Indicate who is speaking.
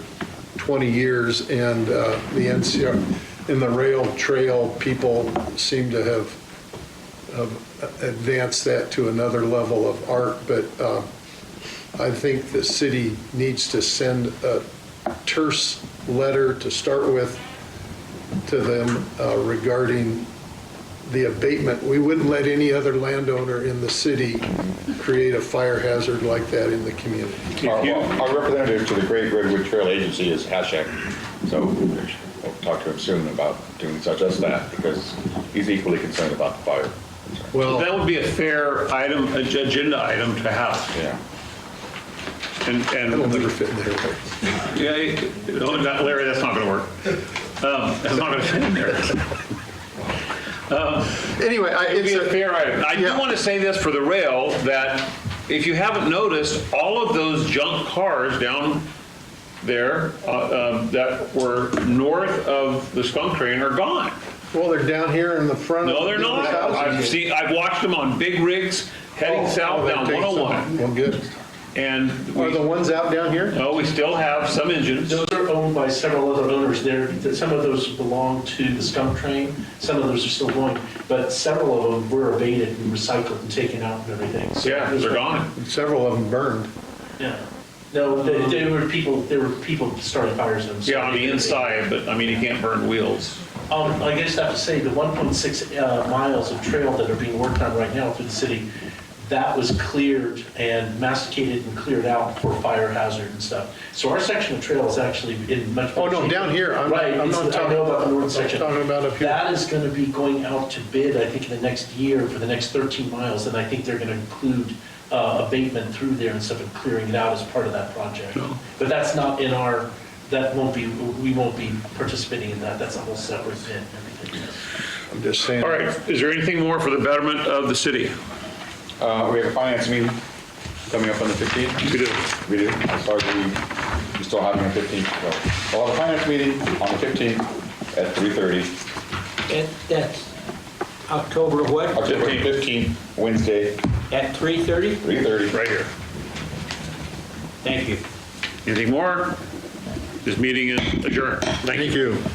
Speaker 1: 20 years, and uh, the NCR, and the rail trail people seem to have have advanced that to another level of art, but uh, I think the city needs to send a terse letter to start with to them uh, regarding the abatement. We wouldn't let any other landowner in the city create a fire hazard like that in the community.
Speaker 2: Our
Speaker 3: If you-
Speaker 2: our representative to the Great Redwood Trail Agency is Hashak, so we'll talk to him soon about doing such as that, because he's equally concerned about the fire.
Speaker 3: That
Speaker 1: Well,
Speaker 3: would be a fair item, ag- agenda item to have.
Speaker 2: Yeah.
Speaker 3: And,
Speaker 1: that'll never
Speaker 3: and,
Speaker 1: fit in there.
Speaker 3: yeah, it- no, not- Larry, that's not going to work. Um, That's not going to fit in there.
Speaker 1: Anyway, I-
Speaker 3: It'd
Speaker 1: it's
Speaker 3: be a
Speaker 1: a,
Speaker 3: fair item. I do
Speaker 1: Yeah.
Speaker 3: want to say this for the rail, that if you haven't noticed, all of those junk cars down there uh, uh, that were north of the skunk train are gone.
Speaker 1: well, they're down here in the front. of
Speaker 3: No, they're not.
Speaker 1: the houses.
Speaker 3: I've seen, I've watched them on big rigs heading
Speaker 1: Oh,
Speaker 3: south
Speaker 1: oh, that
Speaker 3: down
Speaker 1: takes some-
Speaker 3: 101.
Speaker 1: Well, good.
Speaker 3: And
Speaker 1: Are
Speaker 3: we,
Speaker 1: the ones out down here?
Speaker 3: no, we still have some engines.
Speaker 4: Those are owned by several other owners. There, that some of those belong to the skunk train, some of those are still going, but several of them were abated and recycled and taken out and everything. So
Speaker 3: Yeah,
Speaker 4: there's-
Speaker 3: they're gone.
Speaker 1: Several of them burned.
Speaker 4: Yeah. No, there, there were people, there were people starting fires in them. so
Speaker 3: Yeah, on
Speaker 4: they-
Speaker 3: the inside, but I mean, you can't burn wheels.
Speaker 4: Um, I guess I have to say, the 1.6 uh, miles of trail that are being worked on right now through the city, that was cleared and masticated and cleared out for fire hazard and stuff. So our section of trail is actually in much.
Speaker 1: Oh, no,
Speaker 4: better shape.
Speaker 1: down here. I'm-
Speaker 4: Right,
Speaker 1: I'm
Speaker 4: it's-
Speaker 1: not
Speaker 4: I
Speaker 1: talking-
Speaker 4: know about the
Speaker 1: I'm
Speaker 4: north section.
Speaker 1: talking about up here.
Speaker 4: That is going to be going out to bid, I think, in the next year for the next 13 miles. And I think they're going to include uh, abatement through there and stuff and clearing it out as part of that project. But that's not in our, that won't be, we won't be participating in that. That's a whole separate bid and everything.
Speaker 1: I'm just saying.
Speaker 3: All right, is there anything more for the betterment of the city?
Speaker 2: Uh, We have a finance meeting coming up on the 15th.
Speaker 3: We do.
Speaker 2: We do, as far as we, we still have it on the 15th. so. We'll have a finance meeting on the 15th at 3:30.
Speaker 5: It, that's October what?
Speaker 2: October 15th, Wednesday,
Speaker 5: At 3:30?
Speaker 2: 3:30.
Speaker 3: Right here.
Speaker 5: Thank you.
Speaker 3: Anything more? This meeting is adjourned. Thank you.